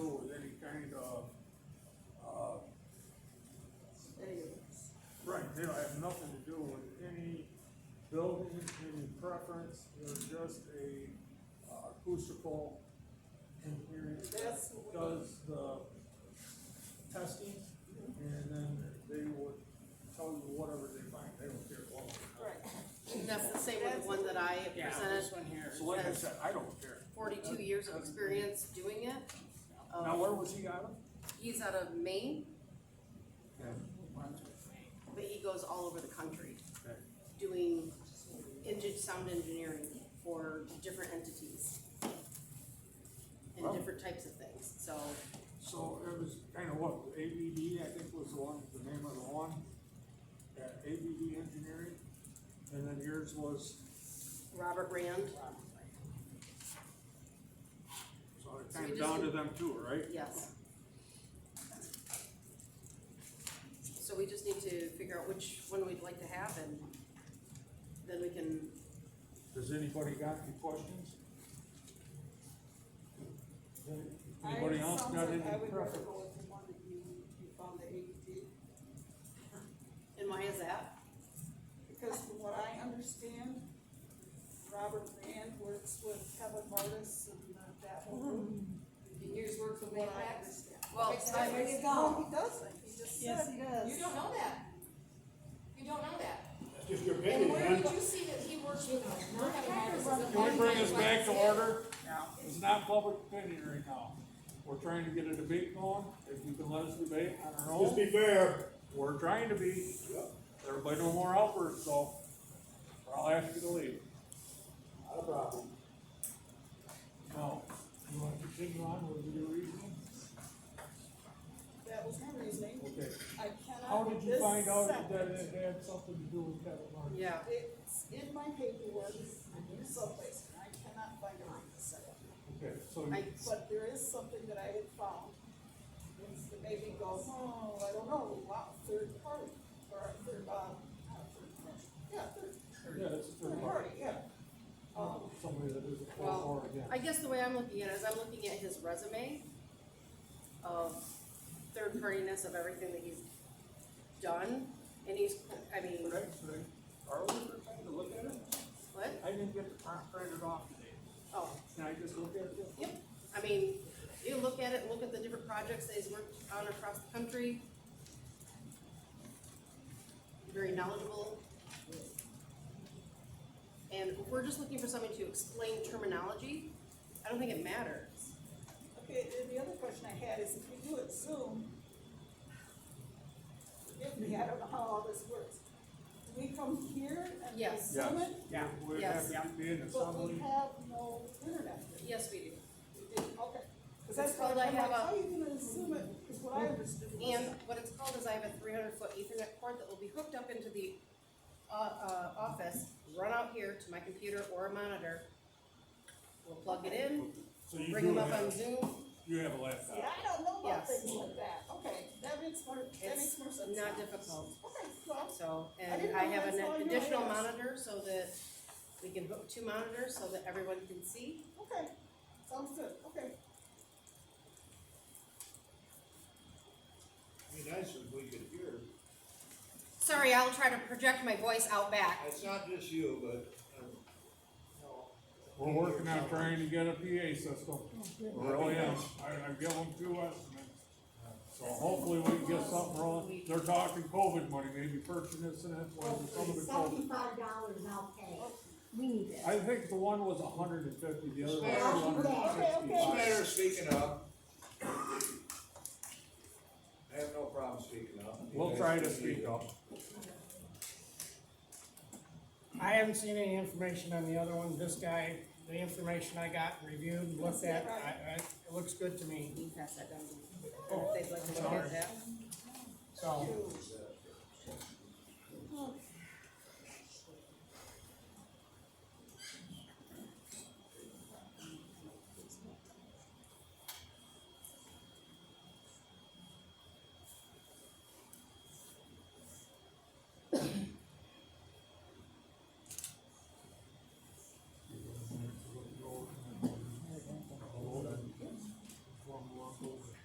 any preference, they're just a uh, acoustical engineering that does the testing, and then they would tell you whatever they find, they don't care what. Correct. That's the same with the one that I Yeah, presented, this one here. So like I said, I don't care. forty-two years of experience doing it. Now, Um, where was he out of? he's out of Maine, Well, but he goes all over the country Okay. doing engine, sound engineering for different entities. And Wow. different types of things, so, So it was kind of what, ABD, I think was the one, the name of the one, yeah, ABD Engineering, and then yours was, Robert Rand, so it's So kind we of just- down to them too, right? yes. So we just need to figure out which one we'd like to have and then we can, Does anybody got any questions? I- Anybody it else sounds got like any I would rather preference? go with the one that you, you found the AED, and why is that? because from what I understand, Robert Rand works with Kevin Martis and uh, that whole group. And yours work for from what I Mapax? understand. Well, Mm-hmm. There I- you No, go. he doesn't, he just Yes, said, he does. You don't know that. You don't know that. That's just your And opinion, where did man. you see that he works with Mercador? Can we bring this back to order? It's not public opinion right now. We're trying to get a debate going, if you can let us debate on our Just own, be fair. we're trying to be. Everybody no more outward, so I'll ask you to leave. Not a problem. No. You wanna continue on with your reasoning? that was my reasoning, Okay. I How cannot did with you this find out that second. it had something to do with Kevin Martin? yeah. It's in my paperwork, someplace, and I cannot find it on the second. Okay, so I, But there is something that I had found, that made me go, oh, I don't know, wow, third party, or a third, um, not a third party, yeah, third, Yeah, it's a third third party. party, yeah. Um, somebody that is a four Well, or again. I guess the way I'm looking at it is I'm looking at his resume of third partiness of everything that he's done, and he's, I mean, Today, today, are we trying to look at it? what? I didn't get the print printed off today. Oh, Can I just look at it? yep, I mean, you look at it, look at the different projects that he's worked on across the country. Very knowledgeable. And we're just looking for somebody to explain terminology, I don't think it matters. Okay, and the other question I had is if we do it Zoom, forgive me, I don't know how all this works. Do we come here and we Yes. Zoom it? Yeah. We'd Yes. have to be in But we assembly. have no internet. Yes, we do. We didn't, okay. Cause that's It's what I'm called I like, have how a- Mm. you gonna Zoom it, is what I understood. was- And what it's called is I have a three hundred foot ethernet cord that will be hooked up into the, uh, uh, office, run out here to my computer or a monitor. We'll plug it in, So you bring them do up on have, Zoom, you have a laptop. Yeah, I don't know about Yes. things like that, okay, that makes more, that makes it's more sense. not now. difficult, Okay, well, so, I and didn't I know have that's all an you additional asked. monitor so that we can hook two monitors so that everyone can see. okay, sounds good, okay. Be nice if we could hear. Sorry, I'll try to project my voice out back. It's not just you, but, um, no. We're working on trying to get a PA system. We Really am. I, I give them two estimates. So hopefully we can get something rolling. They're talking COVID money, maybe purchasing this and that, well, some of the COVID. Seventy-five dollars I'll pay. We need this. I think the one was hundred and fifty, the other was two Okay, hundred and It's a sixty-five. matter of speaking up. I have no problem speaking up. You We'll guys try to can speak either. up. I haven't seen any information on the other one, this guy, the information I got reviewed, and looked at, I, I, it looks good to me, You can pass that down. to them Oh, If they'd like to look sorry. at that. so.